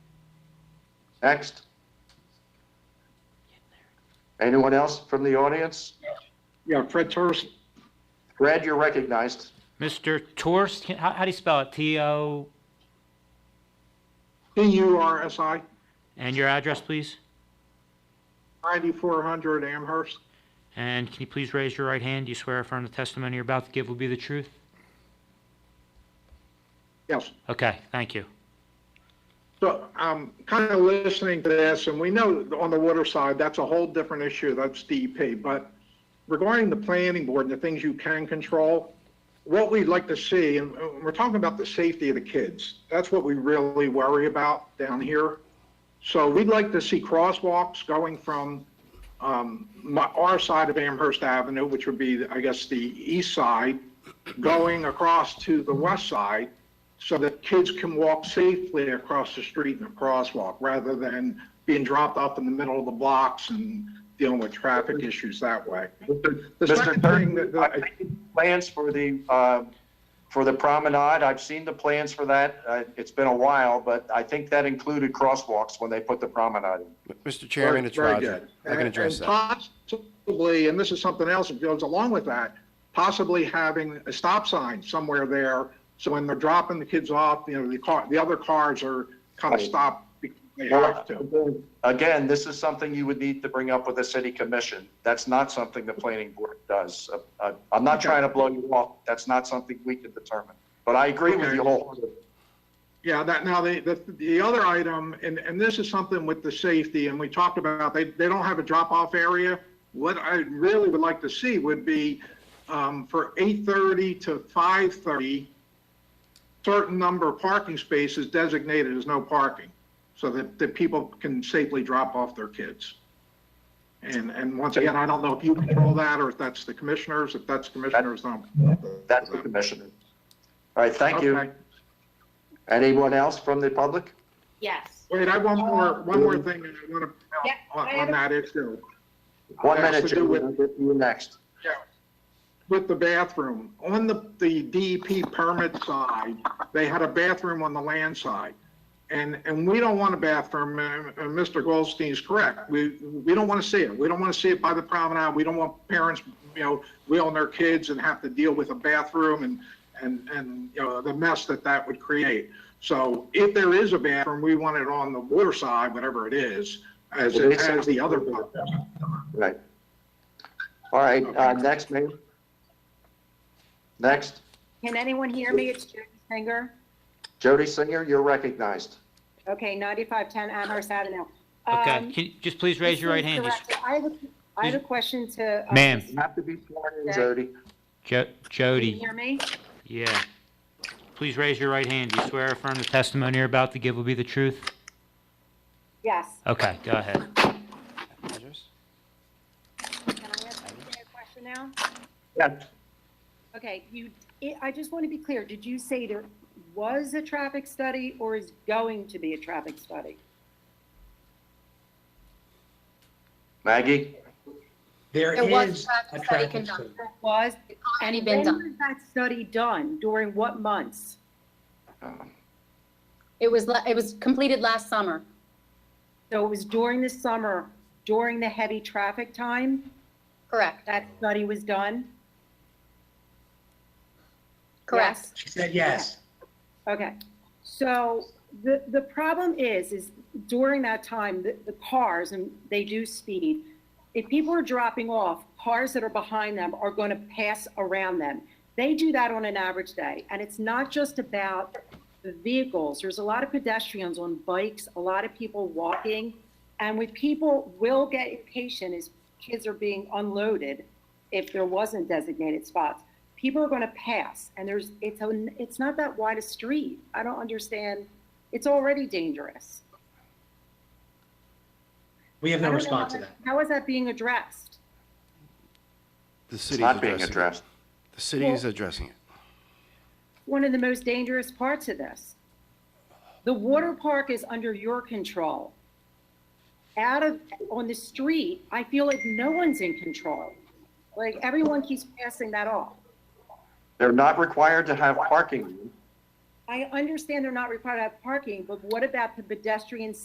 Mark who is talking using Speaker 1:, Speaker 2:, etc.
Speaker 1: Next. Anyone else from the audience?
Speaker 2: Yeah, Fred Torres,
Speaker 1: Fred, you're recognized.
Speaker 3: Mr. Torst, can- how, how do you spell it? T-O,
Speaker 2: P-U-R-S-I,
Speaker 3: and your address, please?
Speaker 2: 9400 Amherst.
Speaker 3: And can you please raise your right hand? Do you swear affirm the testimony you're about to give will be the truth?
Speaker 2: Yes.
Speaker 3: Okay, thank you.
Speaker 2: So I'm kind of listening to this, and we know on the water side, that's a whole different issue. That's DEP. But regarding the planning board and the things you can control, what we'd like to see, and uh, we're talking about the safety of the kids. That's what we really worry about down here. So we'd like to see crosswalks going from um, my- our side of Amherst Avenue, which would be, I guess, the east side, going across to the west side so that kids can walk safely across the street in a crosswalk rather than being dropped off in the middle of the blocks and dealing with traffic issues that way. The
Speaker 1: Mr.
Speaker 2: second thing
Speaker 1: Thurman,
Speaker 2: that- that
Speaker 1: I've
Speaker 2: I-
Speaker 1: seen plans for the, uh, for the promenade, I've seen the plans for that. Uh, It's been a while, but I think that included crosswalks when they put the promenade in.
Speaker 4: Mr. Chairman, it's
Speaker 2: Very
Speaker 4: Roger.
Speaker 2: good.
Speaker 4: I can address
Speaker 2: And-
Speaker 4: that.
Speaker 2: and Possibly, and this is something else that goes along with that, possibly having a stop sign somewhere there, so when they're dropping the kids off, you know, the car, the other cars are kind of
Speaker 1: Right.
Speaker 2: stopped because they have to.
Speaker 1: Again, this is something you would need to bring up with the city commission. That's not something the planning board does. Uh, uh, I'm not
Speaker 2: Okay.
Speaker 1: trying to blow you off. That's not something we can determine. But I agree with
Speaker 2: Okay.
Speaker 1: you wholeheartedly.
Speaker 2: Yeah, that, now, the, the, the other item, and, and this is something with the safety, and we talked about, they, they don't have a drop-off area. What I really would like to see would be, um, for eight-thirty to five-thirty, certain number of parking spaces designated as no parking, so that, that people can safely drop off their kids. And, and once again, I don't know if you control that, or if that's the commissioners, if that's commissioners, um, no.
Speaker 1: That's the commissioner. All right, thank
Speaker 2: Okay.
Speaker 1: you. Anyone else from the public?
Speaker 5: Yes.
Speaker 2: Wait, I have one more, one more thing that I want
Speaker 5: Yeah,
Speaker 2: to, on
Speaker 5: I
Speaker 2: on that issue.
Speaker 1: One
Speaker 2: It has
Speaker 1: minute,
Speaker 2: to do
Speaker 1: Jim.
Speaker 2: with-
Speaker 1: You're next.
Speaker 2: With the bathroom, on the, the DEP permit side, they had a bathroom on the land side. And, and we don't want a bathroom, uh, and and Mr. Goldstein's correct. We, we don't want to see it. We don't want to see it by the promenade. We don't want parents, you know, wheeling their kids and have to deal with a bathroom and, and, and, you know, the mess that that would create. So if there is a bathroom, we want it on the water side, whatever it is, as,
Speaker 1: Well, it's-
Speaker 2: as the other. bathroom.
Speaker 1: Right. All right, uh, next, Mayor. Next,
Speaker 5: Can anyone hear me? It's Jody Singer.
Speaker 1: Jody Singer, you're recognized.
Speaker 5: Okay, 9510 Amherst Avenue.
Speaker 3: Okay,
Speaker 5: Um,
Speaker 3: can you just please raise your right hand?
Speaker 5: Mr.
Speaker 3: Just-
Speaker 5: Director, I have, a- I have a question to. uh,
Speaker 3: Ma'am.
Speaker 5: Can
Speaker 1: You have to be sworn in,
Speaker 5: Okay.
Speaker 1: Jody.
Speaker 3: Jo-
Speaker 5: you
Speaker 3: Jody,
Speaker 5: hear me?
Speaker 3: yeah. Please raise your right hand. Do you swear affirm the testimony you're about to give will be the truth?
Speaker 5: Yes.
Speaker 3: Okay, go ahead.
Speaker 5: Can I ask you a question now?
Speaker 1: Yes.
Speaker 5: Okay, you, I- I just want to be clear. Did you say there was a traffic study or is going to be a traffic study?
Speaker 1: Maggie?
Speaker 6: There
Speaker 7: There was
Speaker 6: is
Speaker 7: traffic
Speaker 6: a
Speaker 7: study
Speaker 6: traffic
Speaker 7: conducted.
Speaker 6: study.
Speaker 5: There was.
Speaker 7: It's already
Speaker 5: And
Speaker 7: been
Speaker 5: when
Speaker 7: done.
Speaker 5: was that study done? During what months?
Speaker 7: It was, la- it was completed last summer.
Speaker 5: So it was during the summer, during the heavy traffic time,
Speaker 7: Correct,
Speaker 5: that study was done?
Speaker 7: correct.
Speaker 5: Yes?
Speaker 6: She said yes.
Speaker 5: Okay, so the, the problem is, is during that time, the, the cars, and they do speed, if people are dropping off, cars that are behind them are going to pass around them. They do that on an average day, and it's not just about the vehicles. There's a lot of pedestrians on bikes, a lot of people walking, and when people will get impatient as kids are being unloaded, if there wasn't designated spots, people are going to pass, and there's it's a, it's not that wide a street. I don't understand. It's already dangerous.
Speaker 6: We have
Speaker 5: I
Speaker 6: no
Speaker 5: don't know
Speaker 6: response
Speaker 5: how
Speaker 6: to that.
Speaker 5: How is that being addressed?
Speaker 4: The
Speaker 1: It's
Speaker 4: city's
Speaker 1: not being
Speaker 4: addressing it.
Speaker 1: addressed.
Speaker 4: The city is addressing it.
Speaker 5: one of the most dangerous parts of this. The water park is under your control. Out of, on the street, I feel like no one's in control. Like, everyone keeps passing that off.
Speaker 1: They're not required to have parking.
Speaker 5: I understand they're not required to have parking, but what about the pedestrian